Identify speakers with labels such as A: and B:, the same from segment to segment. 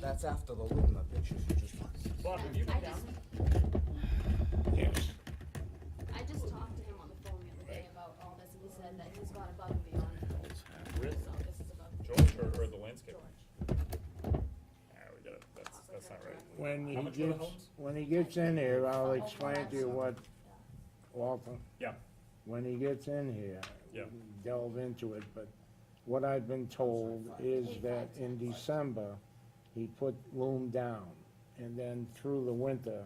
A: That's after the Luna pictures you just took.
B: Bob, have you
C: I
B: been down
C: just,
D: Yes.
C: I just talked to him on the phone the other day about all this, and he said that he's got above and beyond,
B: there?
C: so this is above
B: With George or, or the landscape?
C: George.
B: Ah, we gotta, that's, that's not right.
D: When
B: How
D: he
B: much were the
D: gets,
B: homes?
D: when he gets in here, I'll explain to you what, Walter,
B: Yeah,
D: when he gets in here.
B: Yeah.
D: Delve into it, but what I've been told is that in December, he put loom down. And then through the winter,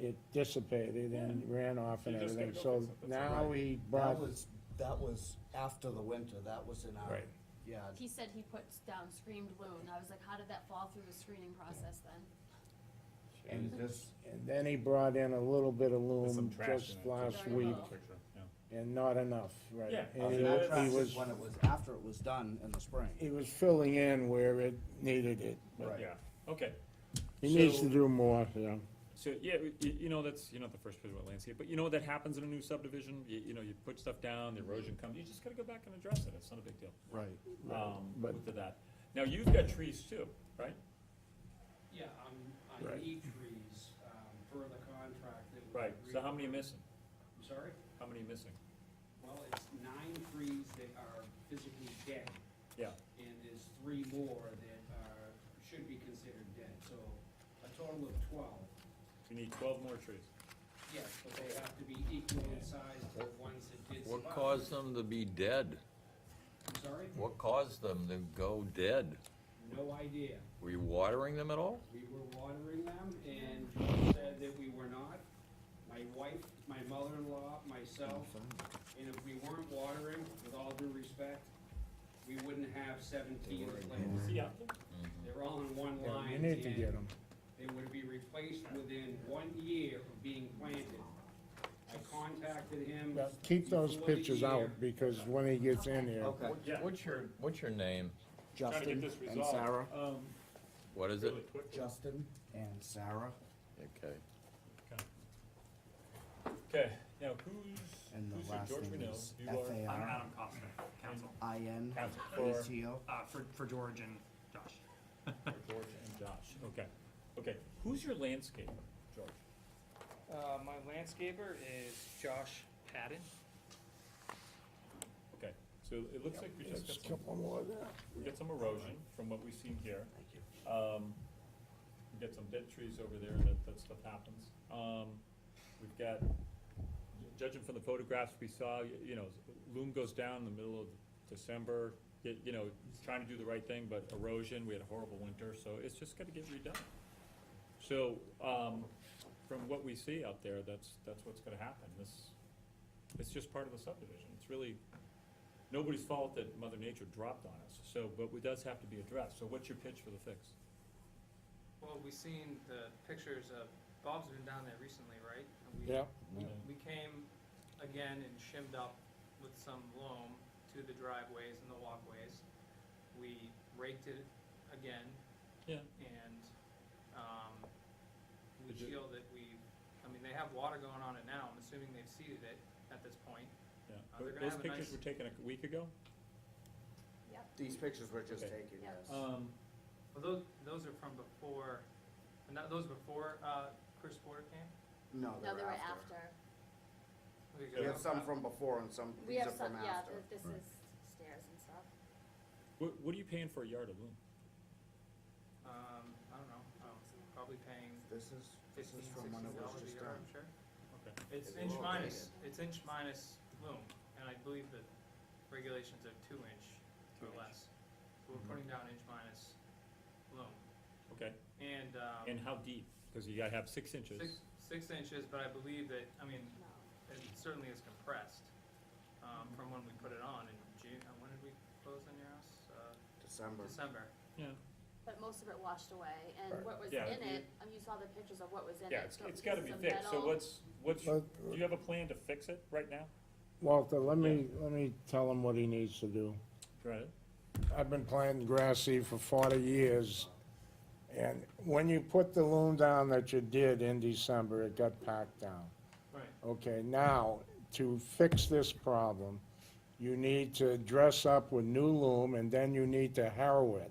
D: it dissipated and ran off and
B: You Mm-hmm. just gotta go
D: everything. So
B: fix it, that's
D: now he
A: That
D: brought,
A: was, that was after the winter, that was in our,
B: Right.
A: yeah,
C: He said he puts down screamed loon, I was like, how did that fall through the screening process then?
A: and this,
D: and then he brought in a little bit of
B: There's some
D: loom
B: trash
D: just
B: in it.
D: last
C: Very
D: week,
C: well.
B: Picture, yeah.
D: and not enough, right?
B: Yeah.
D: And
A: and
D: he-
A: that
B: it's-
A: track
D: he
A: is
D: was,
A: when it was, after it was done in the spring.
D: he was filling in where it needed it. but
A: Right.
B: Yeah, okay.
D: He needs to
B: So-
D: do more, yeah.
B: So, yeah, you, you know, that's, you're not the first person with landscape, but you know, that happens in a new subdivision, you, you know, you put stuff down, the erosion comes, you just gotta go back and address it, it's not a big deal.
A: Right.
B: Um,
D: but-
B: with that. Now, you've got trees too, right?
E: Yeah, on, on
D: Right.
E: E trees, um, per the contract that we.
B: Right, so
E: agreed
B: how many are
E: upon.
B: missing?
E: I'm sorry?
B: How many are missing?
E: Well, it's nine trees that are physically dead,
B: Yeah,
E: and there's three more that are, should be considered dead, so a total of twelve.
B: we need twelve more trees.
E: Yes, but they have to be equal in size to the ones that did survive.
F: What caused them to be dead?
E: I'm sorry?
F: What caused them to go dead?
E: No idea.
F: Were you watering them at all?
E: We were watering them, and George said that we were not. My wife, my mother-in-law, myself, and if we weren't watering, with all due respect, we wouldn't have seventeen plants.
B: See out there?
E: They're all in one
D: Yeah,
E: line,
D: You
E: and
D: need to get him.
E: they would be replaced within one year of being planted. I contacted him.
D: Keep those
E: before the
D: pictures
E: year.
D: out, because when he gets in here,
A: Okay,
B: Yeah.
F: What's your, what's your name?
B: Trying to get
A: Justin
B: this
A: and
B: resolved,
A: Sarah,
B: um,
F: What is it?
B: really quickly.
A: Justin and Sarah
F: Okay.
B: Okay, now who's,
A: And the
B: who's your
A: last
B: George
A: name
B: Renell?
A: is
B: You are,
A: F.A.
G: I'm Adam Costner, counsel,
A: I N
B: Counsel
A: E
B: for-
A: T O.
G: uh, for, for George and Josh.
B: for George and Josh, okay. Okay, who's your landscape, George?
G: Uh, my landscaper is Josh Patton.
B: Okay, so it looks like we just
D: there's
B: got
D: a
B: some,
D: couple more there.
B: we got some erosion from what we've seen here.
A: Thank you.
B: Um, we got some dead trees over there, that, that stuff happens. Um, we've got, judging from the photographs we saw, y- you know, loom goes down in the middle of December, y- you know, trying to do the right thing, but erosion, we had a horrible winter, so it's just gotta get redone. So, um, from what we see out there, that's, that's what's gonna happen, this, it's just part of the subdivision, it's really nobody's fault that Mother Nature dropped on us, so, but it does have to be addressed, so what's your pitch for the fix?
H: Well, we seen the pictures of, Bob's been down there recently, right? And we-
D: Yeah,
H: We came again and shimmed up with some loam to the driveways and the walkways. We raked it again
B: Yeah,
H: and, um, we
B: Did you-
H: feel that we, I mean, they have water going on it now, I'm assuming they've seeded it at this point.
B: yeah,
H: Uh, they're
B: but
H: gonna
B: those
H: have a
B: pictures
H: nice-
B: were taken a week ago?
A: These pictures were just
B: Okay.
A: taken,
C: Yeah.
A: yes.
B: Um,
H: Well, those, those are from before, and that, those before, uh, Chris Porter came?
A: No,
C: No, they
A: they're
C: were
A: after.
C: after,
H: Okay,
A: We
H: good.
A: have some from before and some,
C: we
A: these are
C: have some,
A: from
C: yeah,
A: after.
C: th- this is stairs and stuff.
B: what, what are you paying for a yard of loom?
H: Um, I don't know,
C: Oh.
H: um, probably paying
A: This is, this
H: fifteen,
A: is
H: sixteen
A: from when it
H: dollars
A: was
H: a
A: just
H: yard,
A: done.
H: I'm sure.
B: Okay.
H: It's
A: It's
H: inch
A: low
H: minus, it's inch minus loom, and I believe the regulations are two inch Mm-hmm. or less. So We're putting down inch minus loom,
B: Okay,
H: and, um,
B: and how deep? Cause you gotta have six inches.
H: six, six inches, but I believe that, I mean, it certainly is compressed, um,
A: Mm-hmm.
H: from when we put it on in June, uh, when did we close on your house? Uh,
A: December.
H: December.
B: Yeah,
C: But most of it washed away, and what was
B: Yeah,
C: in
B: you-
C: it, um, you saw the pictures of what was in it.
B: yeah, it's,
C: so
B: it's gotta be
C: pieces of
B: fixed, so
C: metal.
B: what's, what's, do
D: But-
B: you have a plan to fix it right now?
D: Walter, let me, let me tell him what he needs to do.
B: Right.
D: I've been planting grass seed for forty years, and when you put the loom down that you did in December, it got packed down.
H: Right.
D: Okay, now, to fix this problem, you need to dress up with new loom, and then you need to harrow it.